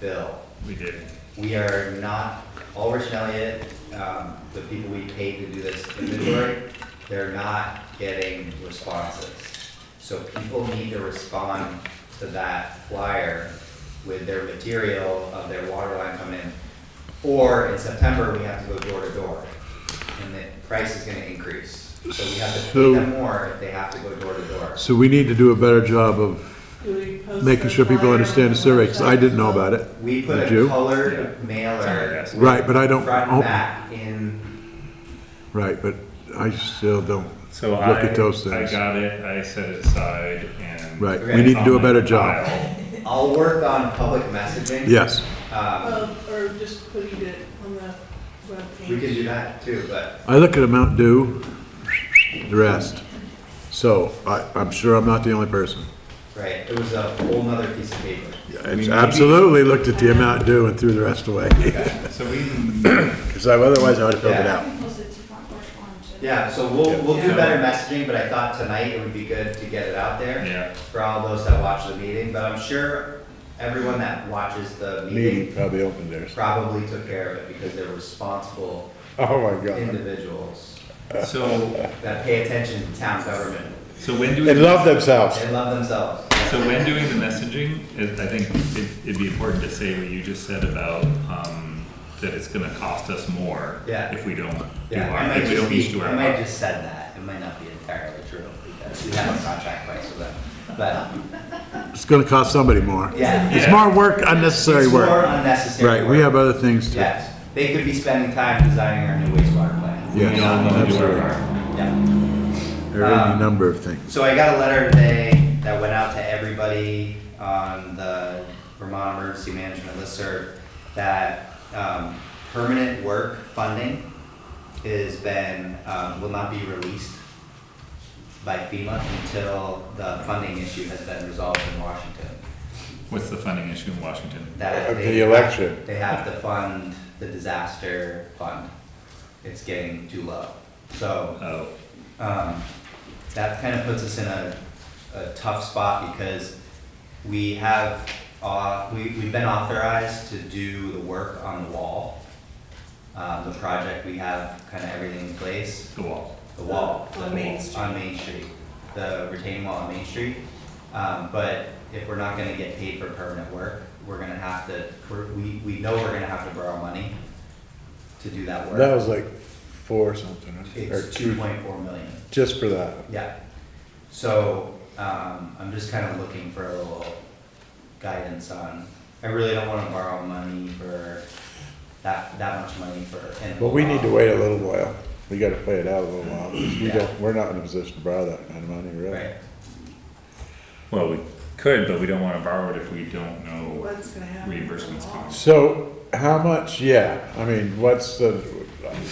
bill. We did. We are not, Ulrich and Elliott, um, the people we paid to do this inventory, they're not getting responses. So people need to respond to that flyer with their material of their water line coming in. Or in September, we have to go door to door, and the price is gonna increase. So we have to pay So- them more if they have to go door to door. So we need to do a better job of making sure people understand the survey, because I didn't know about it. We put Did a you? colored mailer. Sorry, Right, but I don't, Front and oh, back in, right, but I still don't, So Look I, at those I things. got it, I set it aside and. right, Okay. we need to do a better job. I'll work on public messaging. Yes, Um, Well, or just putting it on the webpage. we can do that too, but I look at a Mountain Dew, the rest. So I, I'm sure I'm not the only person. right, it was a whole nother piece of paper. I Absolutely looked at the Mountain Dew and threw the rest away, So we, because otherwise I would have filled it out. Yeah, so we'll we'll do Yeah. better messaging, but I thought tonight it would be good to get it out there yeah, for all those that watch the meeting. But I'm sure everyone that watches the Meeting meeting probably opened theirs. probably took care of it because they're responsible Oh my God. individuals so, that pay attention to town government. so when doing. They love themselves. They love themselves. So when doing the messaging, it- I think it- it'd be important to say what you just said about, um, that it's gonna cost us more. Yeah. If we don't do Yeah, our, I might if we just don't each be, do I our might have part. just said that, it might not be entirely true, because we have a contract price with them, but, It's gonna cost somebody more. yeah. It's Yeah. more work, unnecessary It's more work. unnecessary Right, we work. have other things to. Yes, they could be spending time designing our new wastewater plant. Yes, You know, absolutely. Yeah, There are Um, any number of things. so I got a letter today that went out to everybody on the Vermont Emergency Management listserv that, um, permanent work funding has been, um, will not be released by FEMA until the funding issue has been resolved in Washington. What's the funding issue in Washington? That Of the they- election. They have to fund the disaster fund. It's getting too low. So, Oh, um, that kind of puts us in a, a tough spot because we have, uh, we, we've been authorized to do the work on the wall. Um, the project, we have kind of everything in place the wall. the wall. On the Main wall- Street. On Main Street, the retaining wall on Main Street. Um, but if we're not gonna get paid for permanent work, we're gonna have to, we're- we, we know we're gonna have to borrow money to do that work. That was like four something, or It's two two, point four million, just for that. yeah. So, um, I'm just kinda looking for a little guidance on, I really don't wanna borrow money for that, that much money for. and- But we need to wait a little while. We gotta play it out a little while. 'cause We Yeah. don't, we're not in a position to borrow that kind of money, really. Right, Well, we could, but we don't wanna borrow it if we don't know What's gonna happen? reimbursements cost. So how much, yeah, I mean, what's the,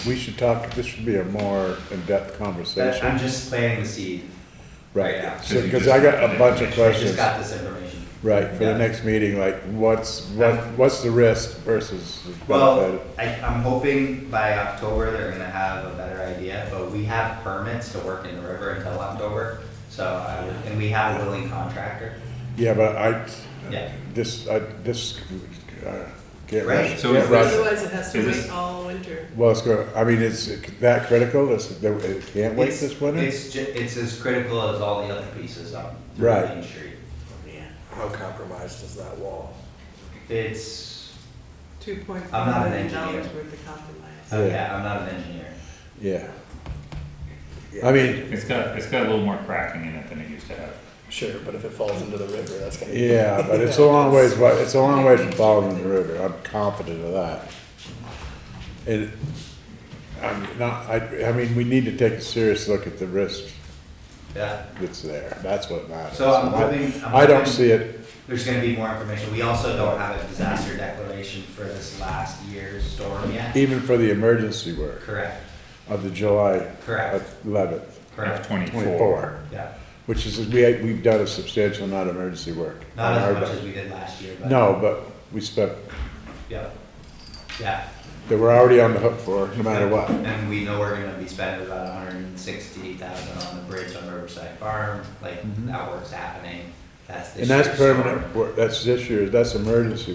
we should talk, this should be a more in-depth That- I'm conversation. just planting the seed. Right, yeah. so, cause I got a bunch of I just questions, got this information. right, for the Yeah. Um, next meeting, like what's, what, what's the risk versus the Well, benefit? I, I'm hoping by October they're gonna have a better idea, but we have permits to work in the river until October. So, I would- and we have a willing contractor. Yeah, but Yeah. I, this, I, this, uh, get Right. rushed. So get is this- rushed. Otherwise, it has to Is this- wait all winter. Well, it's going, I mean, is it that critical? Is it, it can't wait It's- this winter? It's, ju- it's as critical as all the other pieces on Right. Main Street. Yeah, How compromised is that wall? It's, two point I'm not five an million engineer. dollars worth of compromise. Yeah. oh yeah, I'm not an engineer. Yeah. I mean, It's got, it's got a little more cracking in it than it used to have. Sure, but if it falls into the river, that's gonna. be- yeah, but it's a long ways, wa- it's a long ways from following the river. I'm confident of that. It, I'm not, I, I mean, we need to take a serious look at the risk Yeah, that's there. That's what matters. So I'm I- hoping- I'm I don't hoping- see it, there's gonna be more information. We also don't have a disaster declaration for this last year's storm yet. even for the emergency work Correct, of the July correct, eleventh, correct, F twenty-four. twenty-four, yeah. which is, we, we've done a substantial amount of emergency work. Not on our as much back. as we did last year, but. No, but we spent, Yeah, yeah, that we're already on the hook for, no matter what. and we know we're gonna be spending about hundred and sixty thousand on the bridge on Riverside Farm, like, Mhm. that work's happening, that's this And that's year's storm. permanent, work. that's this year, that's emergency